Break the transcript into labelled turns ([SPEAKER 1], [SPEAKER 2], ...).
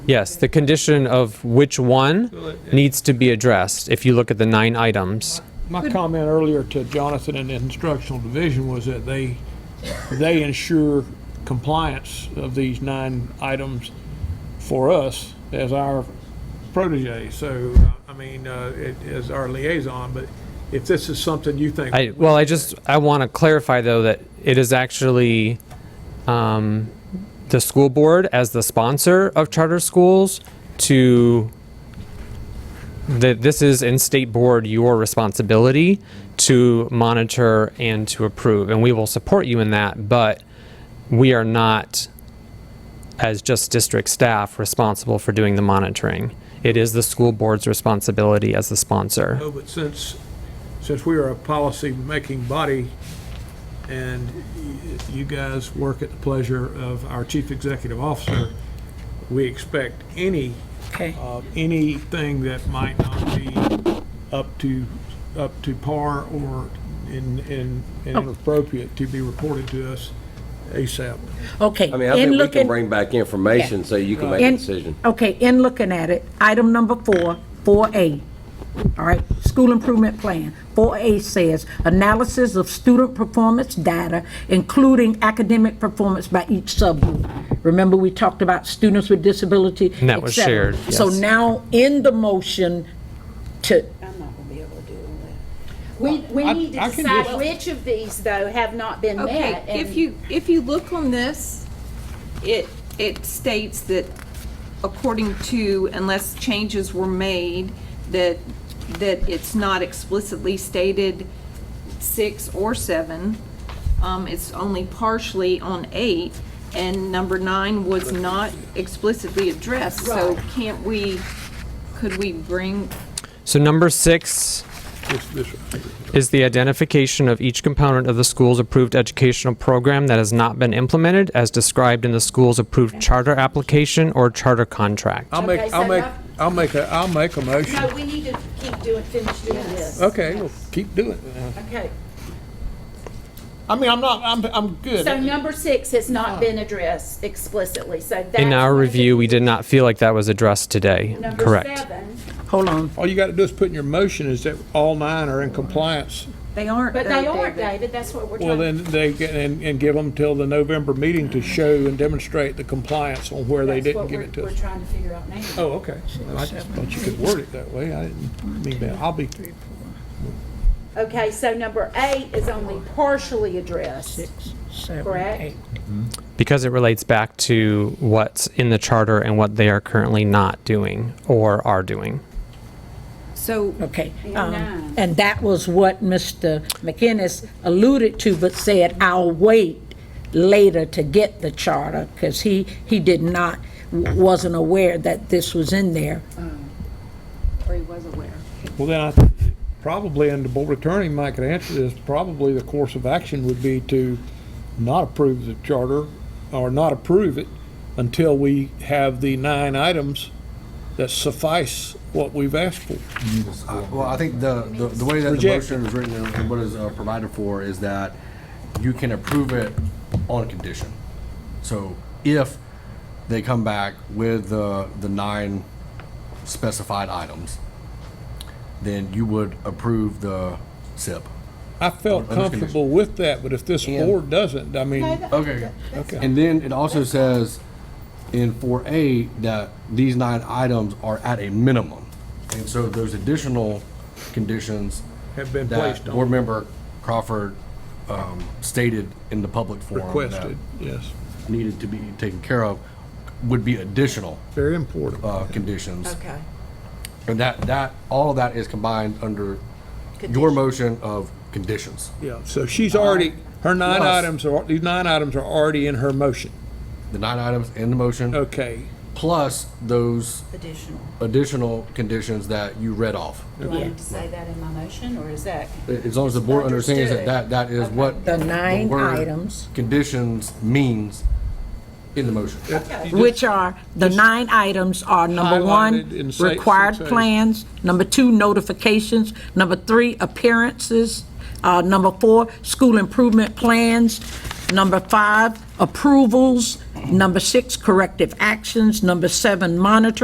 [SPEAKER 1] Yes, the condition of which one needs to be addressed, if you look at the nine items.
[SPEAKER 2] My comment earlier to Jonathan and the instructional division was that they, they ensure compliance of these nine items for us as our protege. So, I mean, uh, it is our liaison, but if this is something you think.
[SPEAKER 1] I, well, I just, I want to clarify, though, that it is actually um, the school board as the sponsor of charter schools to, that this is in state board your responsibility to monitor and to approve, and we will support you in that, but we are not, as just district staff, responsible for doing the monitoring. It is the school board's responsibility as the sponsor.
[SPEAKER 2] No, but since, since we are a policy-making body and y- you guys work at the pleasure of our chief executive officer, we expect any,
[SPEAKER 3] Okay,
[SPEAKER 2] uh, anything that might not be up to, up to par or in, in, and
[SPEAKER 4] Oh.
[SPEAKER 2] inappropriate to be reported to us ASAP.
[SPEAKER 3] okay.
[SPEAKER 5] I mean, I
[SPEAKER 3] in
[SPEAKER 5] think we
[SPEAKER 3] looking-
[SPEAKER 5] can bring back information so you can make a
[SPEAKER 3] in-
[SPEAKER 5] decision.
[SPEAKER 3] Okay, in looking at it, item number four, 4A, all right, school improvement plan. 4A says, analysis of student performance data, including academic performance by each subgroup. Remember, we talked about students with disability,
[SPEAKER 1] And that was
[SPEAKER 3] et cetera.
[SPEAKER 1] shared,
[SPEAKER 3] So
[SPEAKER 1] yes.
[SPEAKER 3] now, in the motion to,
[SPEAKER 4] We, we need
[SPEAKER 2] I
[SPEAKER 4] to
[SPEAKER 2] can
[SPEAKER 4] decide
[SPEAKER 2] just-
[SPEAKER 4] which of these, though, have not been
[SPEAKER 6] Okay,
[SPEAKER 4] met.
[SPEAKER 6] if
[SPEAKER 4] and-
[SPEAKER 6] you, if you look on this, it, it states that according to, unless changes were made, that, that it's not explicitly stated six or seven. Um, it's only partially on eight, and number nine was not explicitly addressed. So can't we, could we bring,
[SPEAKER 1] So number six
[SPEAKER 2] This- this-
[SPEAKER 1] is the identification of each component of the school's approved educational program that has not been implemented as described in the school's approved charter application or charter contract.
[SPEAKER 2] I'll make,
[SPEAKER 4] Okay,
[SPEAKER 2] I'll
[SPEAKER 4] so
[SPEAKER 2] make,
[SPEAKER 4] that-
[SPEAKER 2] I'll make, a will make a motion.
[SPEAKER 4] No, we need to keep doing, finish doing this.
[SPEAKER 2] Okay, well, keep doing it.
[SPEAKER 4] Okay.
[SPEAKER 2] I mean, I'm not, I'm, I'm good.
[SPEAKER 4] So number six has not been addressed explicitly, so that's.
[SPEAKER 1] In our review, we did not feel like that was addressed today.
[SPEAKER 4] Number
[SPEAKER 1] Correct.
[SPEAKER 4] seven,
[SPEAKER 3] hold on,
[SPEAKER 2] All you got to do is put in your motion is that all nine are in compliance.
[SPEAKER 6] they aren't.
[SPEAKER 4] but
[SPEAKER 6] though,
[SPEAKER 4] they aren't,
[SPEAKER 6] David.
[SPEAKER 4] David, that's what we're
[SPEAKER 2] Well,
[SPEAKER 4] trying,
[SPEAKER 2] then they, can- and, and give them till the November meeting to show and demonstrate the compliance on where they
[SPEAKER 4] that's
[SPEAKER 2] didn't
[SPEAKER 4] what
[SPEAKER 2] give
[SPEAKER 4] we're,
[SPEAKER 2] it to
[SPEAKER 4] we're
[SPEAKER 2] us.
[SPEAKER 4] trying to figure out now.
[SPEAKER 2] Oh, okay. Well, I just thought you could word it that way. I didn't mean that. I'll be,
[SPEAKER 4] Okay, so number eight is only partially addressed.
[SPEAKER 3] seven,
[SPEAKER 4] Correct.
[SPEAKER 3] eight.
[SPEAKER 1] Because it relates back to what's in the charter and what they are currently not doing or are doing.
[SPEAKER 6] So
[SPEAKER 3] Okay.
[SPEAKER 4] And
[SPEAKER 3] um,
[SPEAKER 4] nine.
[SPEAKER 3] And that was what Mr. McInnes alluded to, but said, I'll wait later to get the charter, because he, he did not, wasn't aware that this was in there.
[SPEAKER 6] or he was aware.
[SPEAKER 2] well, then I, probably, and the board attorney might could answer this, probably the course of action would be to not approve the charter or not approve it until we have the nine items that suffice what we've asked for.
[SPEAKER 7] Uh, Well, I think the, the the way that the
[SPEAKER 2] Reject.
[SPEAKER 7] motion is written and what is uh, provided for is that you can approve it on condition. So if they come back with the, the nine specified items, then you would approve the SIP.
[SPEAKER 2] I felt
[SPEAKER 7] Under condition.
[SPEAKER 2] comfortable with that, but if this
[SPEAKER 7] And-
[SPEAKER 2] board doesn't, I mean.
[SPEAKER 7] Okay.
[SPEAKER 2] Okay.
[SPEAKER 7] And then it also says in four A that these nine items are at a minimum. And so those additional conditions.
[SPEAKER 2] Have been
[SPEAKER 7] that
[SPEAKER 2] placed on.
[SPEAKER 7] Board member Crawford, um, stated in the public forum. that
[SPEAKER 2] requested, yes.
[SPEAKER 7] Needed to be taken care of would be additional,
[SPEAKER 2] Very important.
[SPEAKER 7] uh, conditions. Okay. And that, that, all of that is combined under your motion of conditions.
[SPEAKER 2] Yeah, so she's already, her nine
[SPEAKER 7] Plus-
[SPEAKER 2] items are, these nine items are already in her motion.
[SPEAKER 7] The nine items in the motion.
[SPEAKER 2] Okay,
[SPEAKER 7] plus those additional conditions that you read off.
[SPEAKER 4] Do I need to say that in my motion, or is that?
[SPEAKER 7] A- As long as the board understands that that, that is what.
[SPEAKER 3] The nine
[SPEAKER 7] word
[SPEAKER 3] items.
[SPEAKER 7] Conditions means in the motion.
[SPEAKER 3] Which are, the nine items are, number one,
[SPEAKER 2] Highlighted in sa-
[SPEAKER 3] required
[SPEAKER 2] six A.
[SPEAKER 3] plans, number two, notifications, number three, appearances, uh, number four, school improvement plans, number five, approvals, Number six, corrective actions. Number seven, monitoring.